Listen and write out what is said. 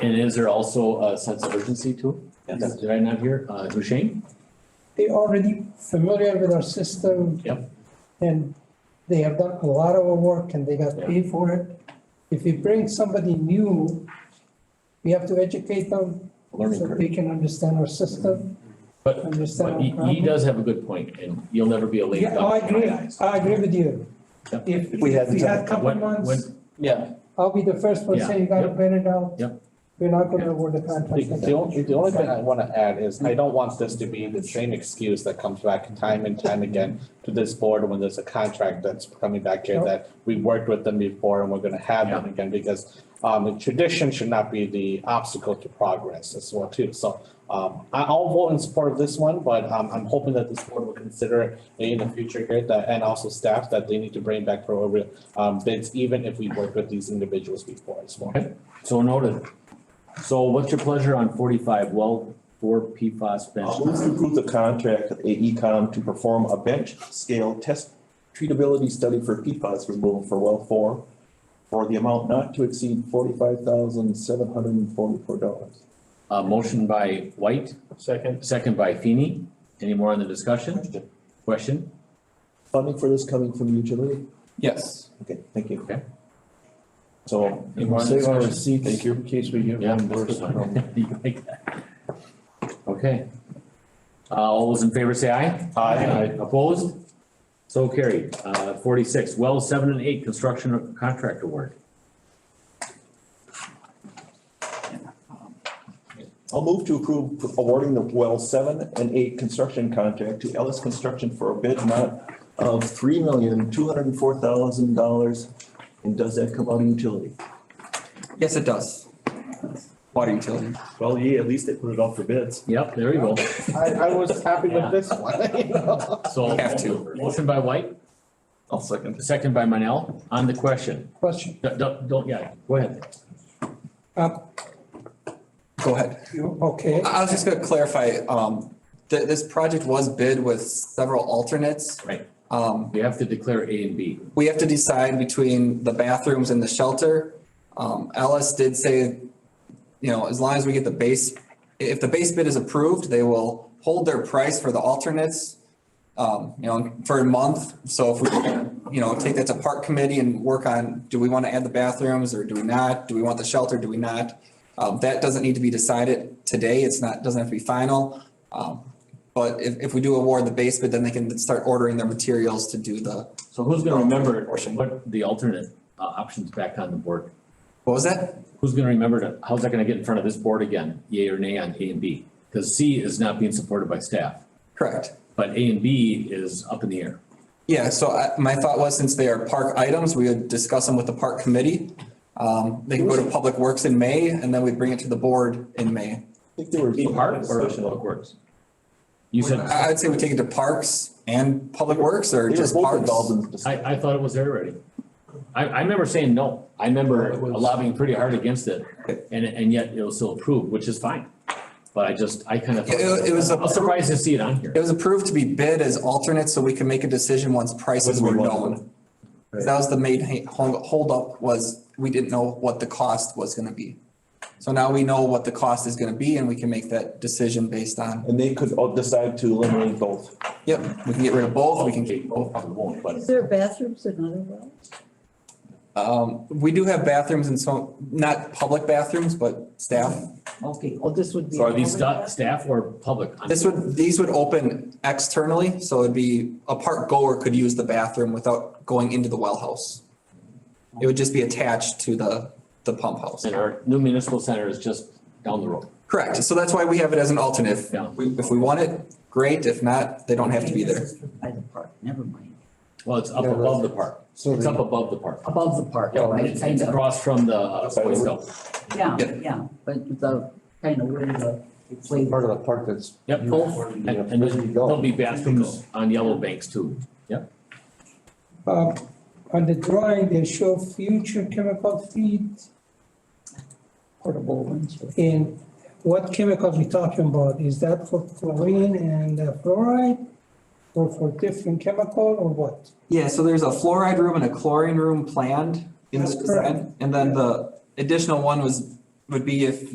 And is there also a sense of urgency to it? Yes. Did I not hear? Uh, Hushain? They're already familiar with our system. Yep. And they have done a lot of work and they got Yeah. paid for it. If we bring somebody new, we have to educate them Learning so curve. they can understand our system, But, understand but our he, he problem. does have a good point and you'll never be a late Yeah, oh, I duck in agree, my eyes. I agree with you. Yep. If We had if the we had time. couple When- months, when- Yeah, I'll be the first one Yeah, saying you gotta yep. burn it out. Yep. We're not Yeah. gonna award the The, contract. like the that. only, the only thing I wanna add is I don't want this to be the same excuse that comes back time and time again to this board when there's a contract that's coming back here Nope. that we worked with them before and we're gonna have them again because um, the tradition should not be the obstacle to progress as well too. So um, I, I'll vote in support of this one, but um, I'm hoping that this board will consider it in the future here that, and also staff that they need to bring back for over um, bids, even if we worked with these individuals before as well. So noted. So what's your pleasure on forty-five? Well, for PFAS Uh, bench. move to approve the contract with AECom to perform a bench scale test treatability study for PFAS removal for well four for the amount not to exceed forty-five thousand seven hundred and forty-four dollars. Uh, motion by White, Second. second by Feeny. Any more on the discussion? Question? Funding for this coming from utility? Yes. Okay, thank you. Okay. So. Any more on the Save our discussion? receipts in case we get Yeah, that's reimbursed. good one. You like that. Okay. Uh, all those in favor say aye. Opposed? So carried. Uh, forty-six, well, seven and eight, construction contract award. I'll move to approve awarding the well seven and eight construction contract to Ellis Construction for a bid amount of three million, two hundred and four thousand dollars. And does that come out of utility? Yes, it does. Water utility. Well, yeah, at least they put it off for bids. Yep, there you go. I, I was happy with this one, So. Have to. Motion by White, I'll second. second by Manel. On the question. Question, Don't- Don't, don't, yeah, go ahead. uh, Go ahead. you, okay, I I was just gonna clarify, um, th- this project was bid with several alternates. Right. Um, You have to declare A and B. we have to decide between the bathrooms and the shelter. Um, Alice did say, you know, as long as we get the base, if the base bid is approved, they will hold their price for the alternates. Um, you know, for a month, so if we, you know, take that to park committee and work on, do we want to add the bathrooms or do we not? Do we want the shelter, do we not? Um, that doesn't need to be decided today, it's not, doesn't have to be final. Um, but if, if we do award the base bid, then they can start ordering their materials to do the, So who's gonna remember Portion. what the alternate uh, options back on the board? what was that? Who's gonna remember to, how's that gonna get in front of this board again, yea or nay on A and B? Cause C is not being supported by staff, Correct. but A and B is up in the air. Yeah, so I, my thought was since they are park items, we would discuss them with the park committee. Um, they can go to Public Works in May and then we bring it to the board in May. I think they were. Be part or Public Works? You said, I, I'd say we take it to Parks and Public Works or They were just both Parks. involved in the discussion. I, I thought it was there already. I, I remember saying no. I remember lobbying pretty hard against it and, and yet it was still approved, which is fine. But I just, I kind of. Yeah, it- it was a- I'm surprised to see it on here. It was approved to be bid as alternate, so we can make a decision once prices When were we want known. 'Cause That was the main ha- hold- holdup was, we didn't know what the cost was gonna be. So now we know what the cost is gonna be and we can make that decision based on, And they could all decide to eliminate both. yep, we can get rid of both, we can Okay, keep both. probably won't, but Is there bathrooms in other wells? Um, we do have bathrooms and so, not public bathrooms, but staff. Okay, oh, this would be. so are these sta- staff or public? This would, these would open externally, so it'd be, a park goer could use the bathroom without going into the well house. It would just be attached to the, the pump house. And our new municipal center is just down the road. Correct, so that's why we have it as an alternate. If Yeah. we, if we want it, great, if not, they don't have to be there. By the park, never mind. Well, it's up Yeah, above the park. So It's up above the park. Above the park, Yeah, right, it's, it's kind of, across from the uh, Boy Scouts. yeah, Yeah. yeah, but the, kind of where the, it's way. Part of the park that's. Yep, and, and there'll be bathrooms on Yellow Banks too. uh, on the drawing, they show future chemical feed Portable ones. And what chemicals we talking about? Is that for chlorine and uh, fluoride? Or for different chemical or what? Yeah, so there's a fluoride room and a chlorine room planned in this That's correct. design, and then the additional one was, would be if